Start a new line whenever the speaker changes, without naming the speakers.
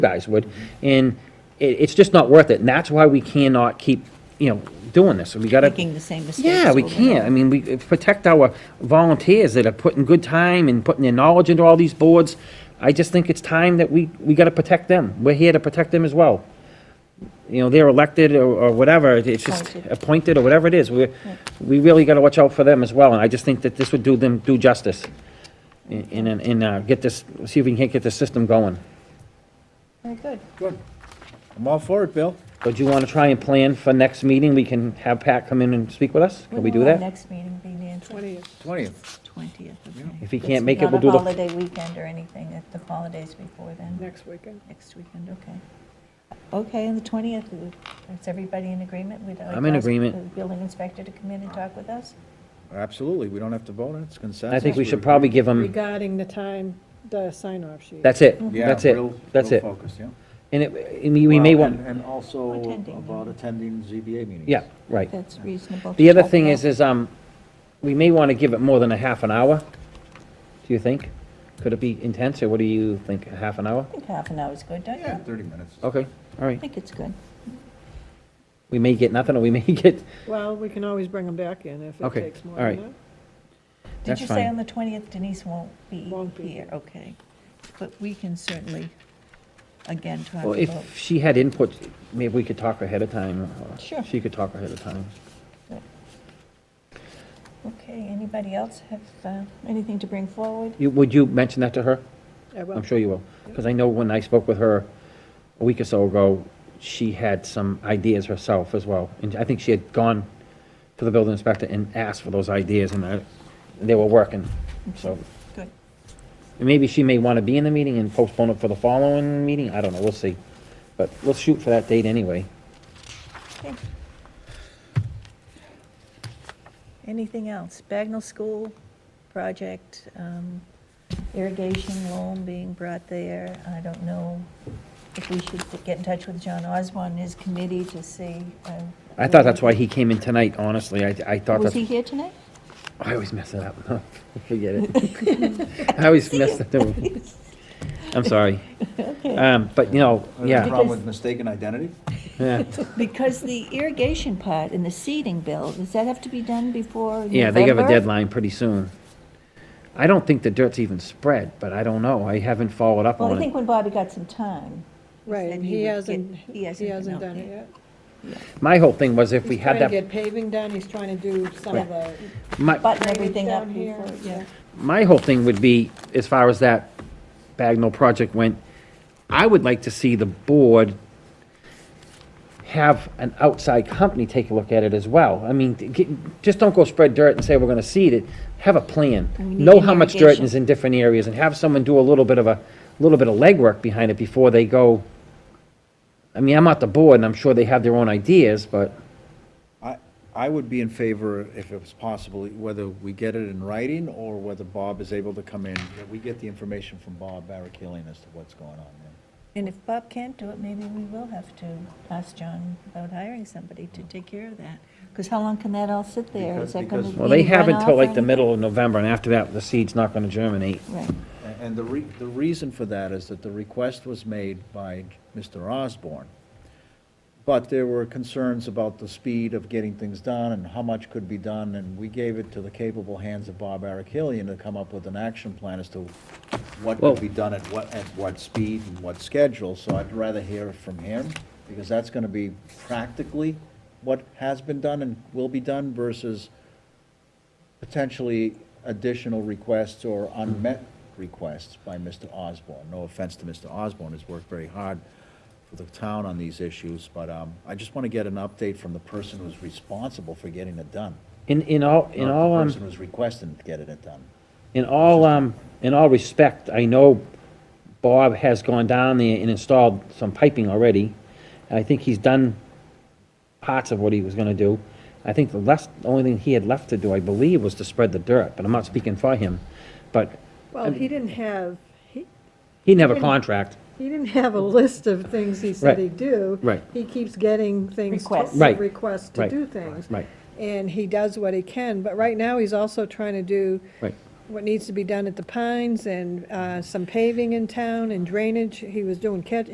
guys would, and it, it's just not worth it, and that's why we cannot keep, you know, doing this, we gotta.
making the same mistakes.
Yeah, we
over and
can't, I mean, we uh, protect our volunteers that are putting good time and putting their knowledge into all these boards. I just think it's time that we, we gotta protect them, we're here to protect them as well. You know, they're elected or, or whatever, it's just
Appointed.
appointed or whatever it is, we, we really gotta watch out for them as well, and I just think that this would do them, do justice. And, and, and, uh, get this, see if we can get this system going.
Very good.
I'm all for it, Bill.
So do you want to try and plan for next meeting? We can have Pat come in and speak with us? Can we
When
do
will our
that?
Next meeting be Nancy?
20th.
20th. okay.
If he
It's
can't make it, we'll do
Not a
the,
holiday weekend or anything, if the holidays before then,
Next weekend.
next weekend, okay. Okay, on the 20th, is everybody in agreement? We'd like
I'm in
to ask
agreement.
the Building inspector to come in and talk with us?
Absolutely, we don't have to vote on it, it's consensus.
I think we should probably give him,
Regarding the time, the sign-off sheet.
Um, that's it,
Yeah,
that's it,
real-
that's
real
it.
focus, yeah.
And it, and we we may
Well,
want,
and- And also
Attending.
about attending ZBA meetings.
yeah, right.
That's reasonable. to
The other
talk
thing
about.
is, is, um, we may want to give it more than a half an hour, do you think? Could it be intense, or what do you think, a half an hour?
I think half an hour's good, don't you?
Yeah,
I
30 minutes.
Okay, all right.
think it's good.
We may get nothing, or we may get,
Well, we can always bring them back in if it
Okay,
takes more
all right.
than
Did
That's
you
fine.
say on the 20th Denise won't be
Won't be
here?
here.
Okay. But we can certainly, again, talk
well,
about,
if she had input, maybe we could talk ahead of time. or
Sure.
She could talk ahead of time.
okay, anybody else have uh, anything to bring forward?
You, would you mention that to her?
that. I will.
I'm sure you will, because I know when I spoke with her a week or so ago, she had some ideas herself as well, and I think she had gone to the building inspector and asked for those ideas, and I- they were working, so.
Good.
And maybe she may want to be in the meeting and postpone it for the following meeting, I don't know, we'll see. But we'll shoot for that date anyway.
Okay. Anything else? Bagnell School project, um, irrigation loan being brought there. I don't know if we should get in touch with John Osborne and his committee to see. uh,
I thought that's why he came in tonight, honestly, I, I thought
Was
that's,
he here tonight?
I always mess it up, forget it. I always mess it up, I'm sorry. Um, but, you know,
Uh,
yeah.
Problem with mistaken identity?
Yeah,
Because the irrigation part and the seeding bill, does that have to be done before November?
yeah, they have a deadline pretty soon. I don't think the dirt's even spread, but I don't know. I haven't followed up
Well, I
on
think
it.
when Bobby got some time. he
Right,
said
and
he would
he
get-
hasn't,
He hasn't been out
done it
there.
yet.
My whole thing was if we had
He's trying
that, Um,
to get paving done, he's trying to do some of the.
my,
Button everything up
down here,
before, yeah.
my whole thing would be, as far as that Bagnell project went, I would like to see the board have an outside company take a look at it as well. I mean, get- just don't go spread dirt and say we're gonna seed it. Have a plan.
We need
Know how much dirt
irrigation.
is in different areas and have someone do a little bit of a, little bit of legwork behind it before they go. I mean, I'm not the board and I'm sure they have their own ideas, but
I, I would be in favor, if it was possible, whether we get it in writing or whether Bob is able to come in, that we get the information from Bob Barakilian as to what's going on there.
And if Bob can't do it, maybe we will have to ask John about hiring somebody to take care of that. Because how long can that all sit there? Is
Because-
that going to
because-
be
Well, they have
runoff
until
or
like the
anything?
middle of November, and after that, the seed's not gonna germinate.
Right,
A- And the re, the reason for that is that the request was made by Mr. Osborne. But there were concerns about the speed of getting things done and how much could be done, and we gave it to the capable hands of Bob Arakilian to come up with an action plan as to what
Well-
could be done at what, at what speed and what schedule, so I'd rather hear from him, because that's gonna be practically what has been done and will be done versus potentially additional requests or unmet requests by Mr. Osborne. No offense to Mr. Osborne, he's worked very hard for the town on these issues, but um, I just want to get an update from the person who's responsible for getting it done.
In, in all, in
not
all,
The
um,
person who's requesting getting it done.
in all, um, in all respect, I know Bob has gone down there and installed some piping already, and I think he's done parts of what he was gonna do. I think the last, the only thing he had left to do, I believe, was to spread the dirt, but I'm not speaking for him. But
Well, he didn't have, he,
he didn't have a contract.
he didn't have a list of things he said
Right,
he'd do.
right.
He keeps getting things. to-
Requests.
Right,
Requests to
right,
do things.
right.
And he does what he can, but right now, he's also trying to do
Right.
what needs to be done at the Pines and uh, some paving in town and drainage. He was doing catch,